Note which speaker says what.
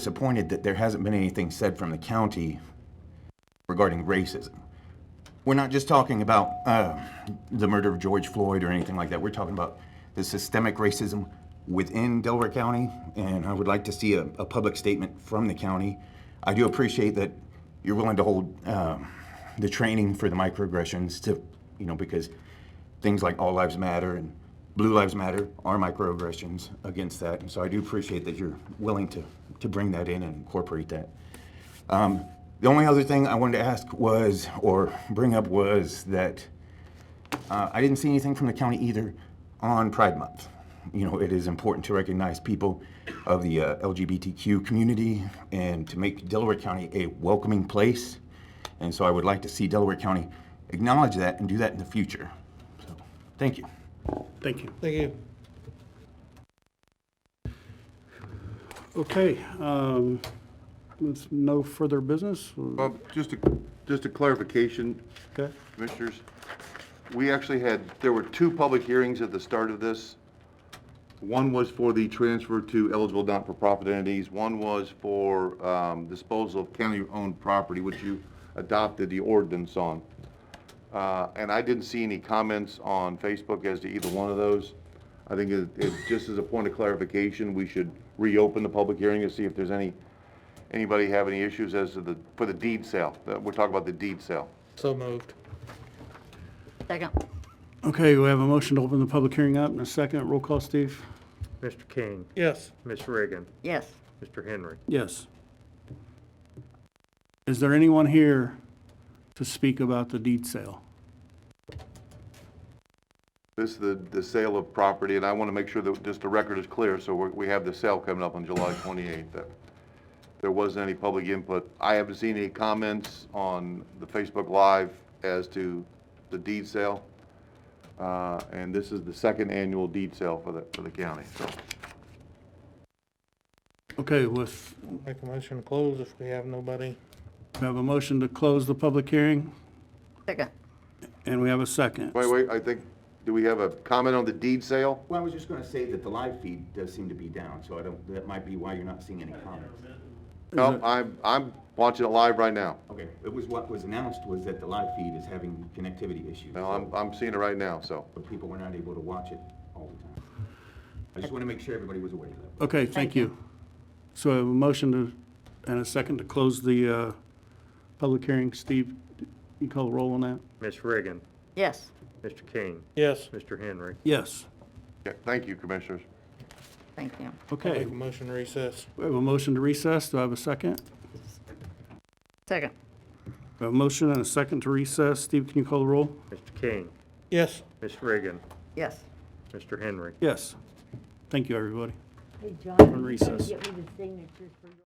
Speaker 1: disappointed that there hasn't been anything said from the county regarding racism. We're not just talking about uh, the murder of George Floyd or anything like that. We're talking about the systemic racism within Delaware County, and I would like to see a, a public statement from the county. I do appreciate that you're willing to hold um, the training for the microaggressions to, you know, because things like All Lives Matter and Blue Lives Matter are microaggressions against that. And so I do appreciate that you're willing to, to bring that in and incorporate that. Um, the only other thing I wanted to ask was, or bring up was that uh, I didn't see anything from the county either on Pride Month. You know, it is important to recognize people of the uh, LGBTQ community and to make Delaware County a welcoming place. And so I would like to see Delaware County acknowledge that and do that in the future. So, thank you.
Speaker 2: Thank you.
Speaker 3: Thank you.
Speaker 2: Okay, um, with no further business,
Speaker 4: Bob, just a, just a clarification,
Speaker 2: okay?
Speaker 4: commissioners. We actually had, there were two public hearings at the start of this. One was for the transfer to eligible not-for-profit entities. One was for um, disposal of county-owned property, which you adopted the ordinance on. Uh, And I didn't see any comments on Facebook as to either one of those. I think it, it, just as a point of clarification, we should reopen the public hearing to see if there's any, anybody have any issues as to the, for the deed sale. Uh, We're talking about the deed sale.
Speaker 3: So moved.
Speaker 5: Second.
Speaker 2: Okay, we have a motion to open the public hearing up in a second. Roll call, Steve?
Speaker 6: Mr. King,
Speaker 3: Yes.
Speaker 6: Miss Reagan,
Speaker 5: Yes.
Speaker 6: Mr. Henry.
Speaker 2: Yes. Is there anyone here to speak about the deed sale?
Speaker 4: This is the, the sale of property, and I want to make sure that just the record is clear, so we, we have the sale coming up on July 28th. That There wasn't any public input. I haven't seen any comments on the Facebook Live as to the deed sale. Uh, And this is the second annual deed sale for the, for the county, so.
Speaker 2: Okay, with,
Speaker 3: Make a motion to close if we have nobody.
Speaker 2: we have a motion to close the public hearing,
Speaker 5: Second.
Speaker 2: and we have a second.
Speaker 4: Wait, wait, I think, do we have a comment on the deed sale?
Speaker 1: Well, I was just going to say that the live feed does seem to be down, so I don't, that might be why you're not seeing any comments.
Speaker 4: No, I'm, I'm watching it live right now.
Speaker 1: Okay, it was what was announced was that the live feed is having connectivity issues.
Speaker 4: No, I'm, I'm seeing it right now, so.
Speaker 1: but people were not able to watch it all the time. I just want to make sure everybody was aware of that.
Speaker 2: Okay, thank you. So I have a motion to, and a second to close the, uh, public hearing. Steve, you call the roll on that?
Speaker 6: Miss Reagan,
Speaker 5: Yes.
Speaker 6: Mr. King,
Speaker 3: Yes.
Speaker 6: Mr. Henry.
Speaker 2: Yes.
Speaker 4: Yeah, Thank you, commissioners.
Speaker 5: Thank you.
Speaker 2: Okay.
Speaker 3: Make a motion to recess.
Speaker 2: We have a motion to recess. Do I have a second?
Speaker 5: Second.
Speaker 2: We have a motion and a second to recess. Steve, can you call the roll?
Speaker 6: Mr. King,
Speaker 3: Yes.
Speaker 6: Miss Reagan,
Speaker 5: Yes.
Speaker 6: Mr. Henry.
Speaker 2: Yes. Thank you, everybody.
Speaker 7: Hey, John,
Speaker 2: On
Speaker 7: you
Speaker 2: recess.
Speaker 7: gotta get me the signatures for your.